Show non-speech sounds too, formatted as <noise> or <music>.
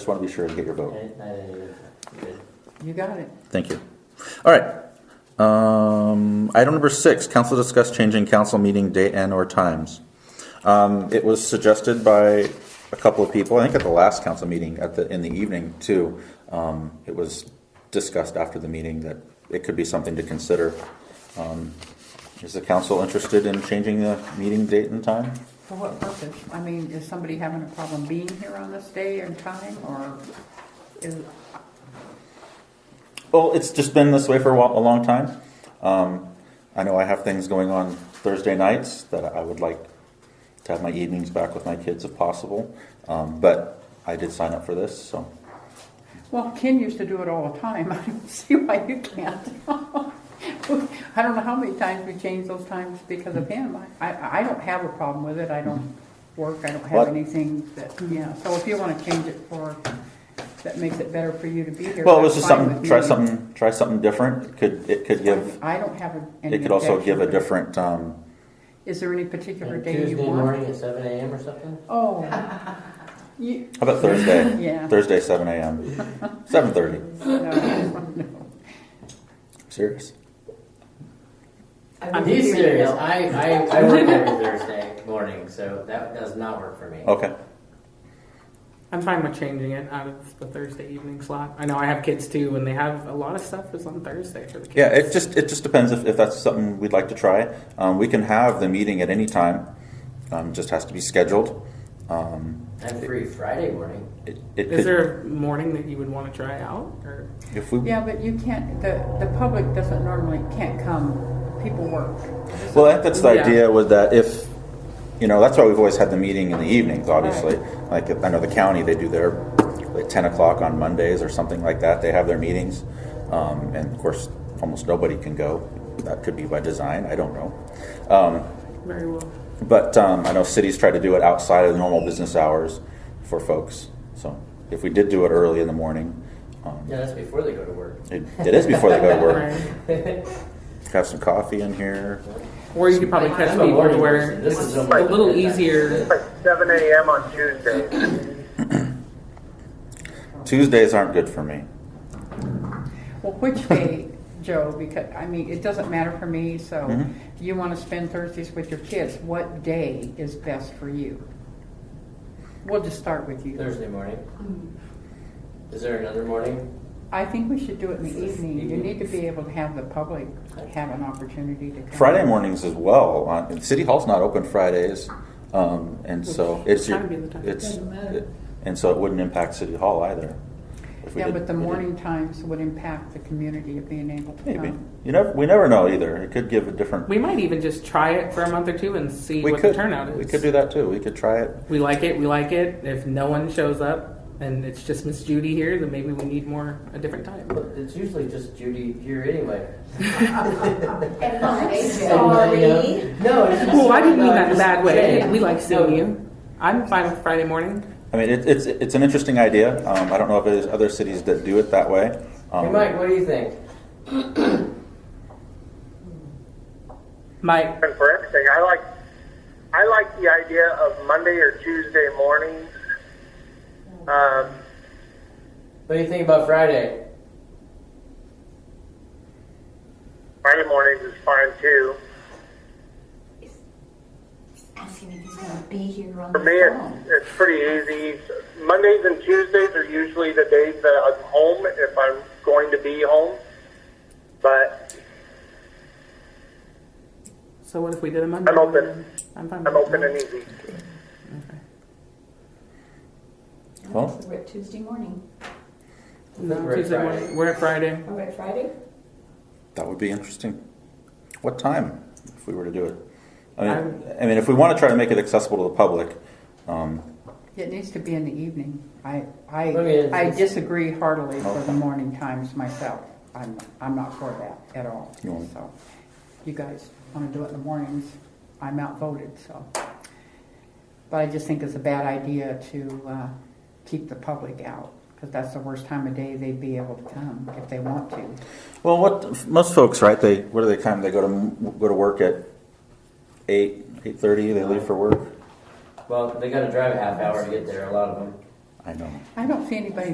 Just want to be sure and get your vote. I- I- it- You got it. Thank you. All right. Um, item number six, council discuss changing council meeting date and or times. Um, it was suggested by a couple of people, I think at the last council meeting at the, in the evening too. Um, it was discussed after the meeting that it could be something to consider. Um, is the council interested in changing the meeting date and time? For what purpose? I mean, is somebody having a problem being here on this day and time, or is, Well, it's just been this way for a, while, a long time. Um, I know I have things going on Thursday nights that I would like to have my evenings back with my kids if possible. Um, but I did sign up for this, so well, Ken used to do it all the time. <laughs> I don't see why you can't. <laughs> I don't know how many times we changed those times because of him. I, I I don't have a problem with it. I don't work, I don't have What? anything that, yeah. So if you want to change it for, that makes it better for you to be here. well, it was that's just fine something. with Try me. something. Try something different. It could it could give. I don't have a- any. It could also objection. give a different. Um, Is there any particular and day you Tuesday want? morning at seven AM or something? Oh. You, how about Thursday? <laughs> Yeah. Thursday, seven a.m. Seven thirty. No. Serious. I'm being serious. I, I, I work every Thursday morning, so that does not work for me. Okay. I'm fine with changing it out of the Thursday evening slot. I know I have kids too, and they have a lot of stuff is on Thursday for the kids. Yeah, it just it just depends if, if that's something we'd like to try. Um, we can have the meeting at any time. Um, just has to be scheduled. Um, I'm free Friday morning. it, it Is could, there a morning that you would want to try out, or if we Yeah, but you can't, the, the public doesn't normally, can't come, people work. well, I think that's the Yeah. idea was that if you know that's why we've always had the meeting in the evenings. Obviously, like I know the county they do their at ten o'clock on Mondays or something like that. They have their meetings, um, and of course, almost nobody can go. That could be by design. I don't know. Um, very well? But um, I know cities try to do it outside of the normal business hours for folks. So if we did do it early in the morning, um, No, that's before they go to work. it, it is before they go to work. Right. Have some coffee in here. Or you could probably catch I'm a people to morning where person. This it's is a a morning little person. easier. like 7 a.m. on Tuesday. Tuesdays aren't good for me. Well, <laughs> which day, Joe, because, I mean, it doesn't matter for me, so Mhm. you want to spend Thursdays with your kids, what day is best for you? We'll just start with <laughs> you. Thursday morning. Hmm. Is there another morning? I think we should do it in the evening. You need to be able to have the public have an opportunity to come. Friday mornings as well. Uh, and City Hall's not open Fridays, um, and so it's your, Time being the time. it's it, and so it wouldn't impact City Hall either. If we Yeah, did- but the we did- morning times would impact the community of being able to maybe come. you never we never know either. It could give a different. uh, We might even just try it for a month or two and see we what could the turnout is. we could do that too. We could try it We like it. We like it. If no one shows up and it's just Miss Judy here, then maybe we need more a different time. But It's usually just Judy here <laughs> anyway. <laughs> And I'm And, you sorry. know, No, it's just. Well, I didn't mean that in a just bad way. saying. We like seeing No, you. I'm fine with Friday morning. I mean, it, it's it's an interesting idea. Um, I don't know if there's other cities that do it that way. Um, Hey, Mike, what do you think? Mike, And for everything, I like I like the idea of Monday or Tuesday mornings. Um, What do you think about Friday? Friday mornings is fine too. Asking if he's gonna be here on the For me, phone. it's, it's pretty easy. Mondays and Tuesdays are usually the days that I'm home if I'm going to be home. But So what if we did a Monday? I'm open. I'm fine. I'm with open that. and easy. Well- So We're at Tuesday morning. No, We're at Tuesday Friday. morning. We're at Friday. Are we at Friday? that would be interesting. What time, if we were to do it? I mean, I'm- I mean, if we want to try to make it accessible to the public, um, It needs to be in the evening. I, I mean, I, it's- I disagree heartily for Okay. the morning times myself. I'm, I'm not for that at all. You want- So, you guys wanna do it in the mornings, I'm outvoted, so. But I just think it's a bad idea to, uh, keep the public out, cause that's the worst time of day they'd be able to come if they want to. Well, what most folks, right? They what do they come? They go to go to work at eight eight thirty. They leave for work. Well, they got to drive a half hour to get there. A lot of them. I I know. I don't see anybody